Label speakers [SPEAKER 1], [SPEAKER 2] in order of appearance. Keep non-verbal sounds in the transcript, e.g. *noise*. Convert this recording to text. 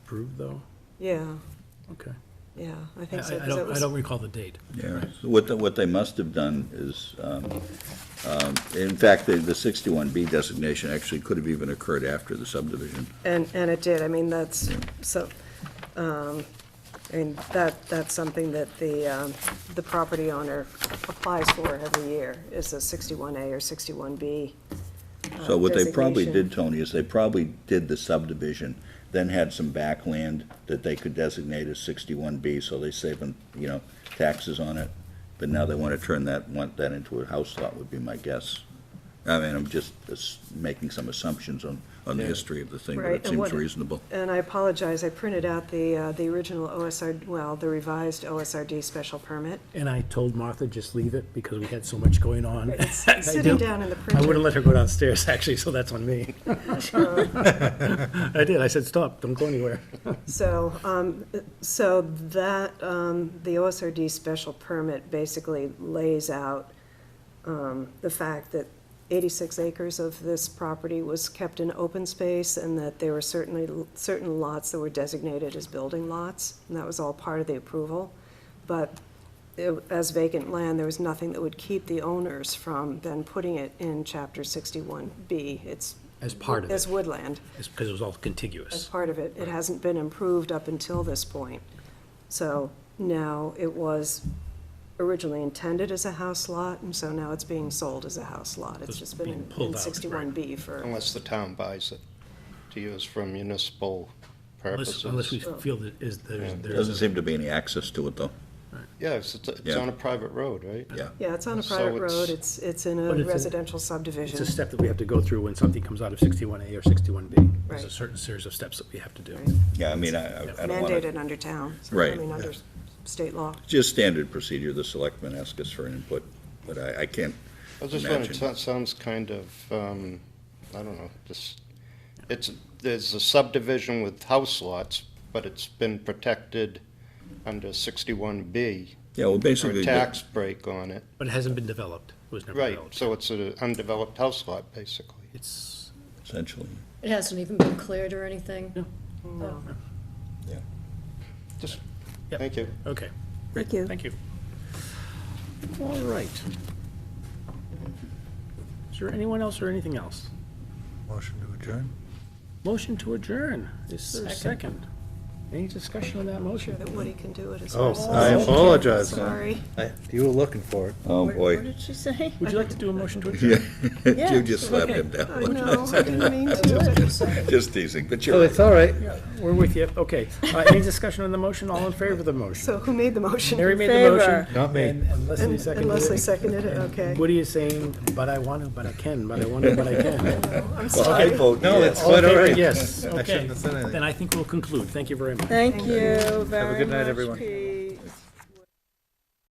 [SPEAKER 1] approved, though?
[SPEAKER 2] Yeah,
[SPEAKER 1] Okay.
[SPEAKER 2] yeah, I
[SPEAKER 1] I
[SPEAKER 2] think so.
[SPEAKER 1] I
[SPEAKER 2] 'cause it
[SPEAKER 1] don't, I
[SPEAKER 2] was-
[SPEAKER 1] don't recall the date.
[SPEAKER 3] Yeah, so what, the- what they must have done is, um, um, in fact, the, the sixty-one B designation actually could have even occurred after the subdivision.
[SPEAKER 2] And, and it did, I mean, that's, so, um, I mean, that, that's something that the, um, the property owner applies for every year, is a 61A or 61B. uh,
[SPEAKER 3] So what they probably
[SPEAKER 2] designation.
[SPEAKER 3] did, Tony, is they probably did the subdivision, then had some backland that they could designate as sixty-one B, so they saving, you know, taxes on it. But now they want to turn that, want that into a house lot would be my guess. I mean, I'm just ass- making some assumptions on, on the history of the thing, but
[SPEAKER 2] Right,
[SPEAKER 3] it
[SPEAKER 2] and
[SPEAKER 3] seems
[SPEAKER 2] what-
[SPEAKER 3] reasonable.
[SPEAKER 2] And I apologize, I printed out the, uh, the original OSR, well, the revised OSRD special permit.
[SPEAKER 1] And I told Martha, just leave it, because we had so much going on. *laughs*
[SPEAKER 2] It's
[SPEAKER 1] I
[SPEAKER 2] sitting
[SPEAKER 1] do-
[SPEAKER 2] down in the
[SPEAKER 1] I wouldn't
[SPEAKER 2] printer.
[SPEAKER 1] let her go downstairs, *laughs* actually, so that's on me. *laughs* I did, I said, stop, don't go anywhere.
[SPEAKER 2] So, um, so that, um, the OSRD special permit basically lays out, um, the fact that eighty-six acres of this property was kept in open space and that there were certainly, certain lots that were designated as building lots, and that was all part of the approval. But it- as vacant land, there was nothing that would keep the owners from then putting it in chapter sixty-one B. It's.
[SPEAKER 1] As part of
[SPEAKER 2] As
[SPEAKER 1] it.
[SPEAKER 2] woodland
[SPEAKER 1] It's because it was all
[SPEAKER 2] as
[SPEAKER 1] contiguous.
[SPEAKER 2] part of it. It hasn't been improved up until this point. So now it was originally intended as a house lot, and so now it's being sold as a house lot. It's
[SPEAKER 1] It's
[SPEAKER 2] just been
[SPEAKER 1] being
[SPEAKER 2] in-
[SPEAKER 1] pulled out,
[SPEAKER 2] in
[SPEAKER 1] right.
[SPEAKER 2] sixty-one B for,
[SPEAKER 4] Unless the town buys it to use for municipal
[SPEAKER 1] Unless, unless we
[SPEAKER 4] purposes.
[SPEAKER 1] feel that is, there's,
[SPEAKER 3] Doesn't
[SPEAKER 1] there's,
[SPEAKER 3] seem to be any access to it, though.
[SPEAKER 4] Yeah, it's, it's- it's
[SPEAKER 3] Yeah.
[SPEAKER 4] on a private road, right?
[SPEAKER 3] Yeah.
[SPEAKER 2] yeah, it's on a
[SPEAKER 4] So
[SPEAKER 2] private
[SPEAKER 4] it's-
[SPEAKER 2] road, it's, it's in
[SPEAKER 1] But
[SPEAKER 2] a
[SPEAKER 1] it's a-
[SPEAKER 2] residential
[SPEAKER 1] it's a
[SPEAKER 2] subdivision.
[SPEAKER 1] step that we have to go through when something comes out of sixty-one A or sixty-one B. There's a
[SPEAKER 2] Right.
[SPEAKER 1] certain series of steps that we have to do.
[SPEAKER 2] Right.
[SPEAKER 3] Yeah, I mean, I, I- I don't want to,
[SPEAKER 2] Mandated under town. so, I
[SPEAKER 3] Right.
[SPEAKER 2] mean, under state law.
[SPEAKER 3] just standard procedure, the selectmen ask us for input, but I, I can't
[SPEAKER 4] I was just wondering, it
[SPEAKER 3] Imagine.
[SPEAKER 4] so- sounds kind of, um, I don't know, just, it's, there's a subdivision with house lots, but it's been protected under sixty-one B
[SPEAKER 3] Yeah, well,
[SPEAKER 4] for
[SPEAKER 3] basically,
[SPEAKER 4] a
[SPEAKER 3] the-
[SPEAKER 4] tax break on it.
[SPEAKER 1] But it hasn't been developed, It was never
[SPEAKER 4] Right,
[SPEAKER 1] developed.
[SPEAKER 4] so it's an undeveloped house lot, basically.
[SPEAKER 1] It's,
[SPEAKER 3] essentially,
[SPEAKER 5] It hasn't even been cleared or anything?
[SPEAKER 1] No.
[SPEAKER 5] No.
[SPEAKER 4] Just,
[SPEAKER 1] Yep.
[SPEAKER 4] thank you.
[SPEAKER 1] okay,
[SPEAKER 2] Thank you.
[SPEAKER 1] thank you. All right. Is there anyone else or anything else?
[SPEAKER 6] Motion to adjourn?
[SPEAKER 1] Motion to adjourn. Is there a second? Any discussion on that motion?
[SPEAKER 2] That Woody can do it as
[SPEAKER 6] Oh,
[SPEAKER 2] well.
[SPEAKER 6] I apologize.
[SPEAKER 2] Sorry.
[SPEAKER 6] You were looking for it.
[SPEAKER 3] oh, *laughs*
[SPEAKER 5] What- What
[SPEAKER 3] boy.
[SPEAKER 5] did she say?
[SPEAKER 1] Would you like to do a motion to adjourn?
[SPEAKER 3] Yeah, you
[SPEAKER 5] Yeah,
[SPEAKER 3] just slapped him down.
[SPEAKER 2] I know, I didn't mean to.
[SPEAKER 3] *laughs* Just teasing, but
[SPEAKER 6] Oh,
[SPEAKER 3] you're
[SPEAKER 6] it's all right.
[SPEAKER 1] We're with you. Okay. Uh, Any discussion on the motion? All in favor of the motion?
[SPEAKER 2] So who made the motion?
[SPEAKER 1] Mary made the motion.
[SPEAKER 5] Favor.
[SPEAKER 6] Not me.
[SPEAKER 1] and- And Leslie
[SPEAKER 2] And and
[SPEAKER 1] seconded
[SPEAKER 2] Leslie
[SPEAKER 1] it.
[SPEAKER 2] seconded it, okay.
[SPEAKER 1] Woody is saying, but I want to, but I can, but I want to, but I can.
[SPEAKER 2] I'm
[SPEAKER 3] Well, I
[SPEAKER 2] sorry.
[SPEAKER 3] vote
[SPEAKER 6] No,
[SPEAKER 3] yes.
[SPEAKER 6] it's
[SPEAKER 1] All in
[SPEAKER 6] quite all
[SPEAKER 1] favor?
[SPEAKER 6] right.
[SPEAKER 1] Yes,
[SPEAKER 6] I
[SPEAKER 1] okay.
[SPEAKER 6] shouldn't have said anything.
[SPEAKER 1] Then I think we'll conclude. Thank you very much.
[SPEAKER 5] Thank you very much,
[SPEAKER 6] good night, everyone.
[SPEAKER 5] Pete.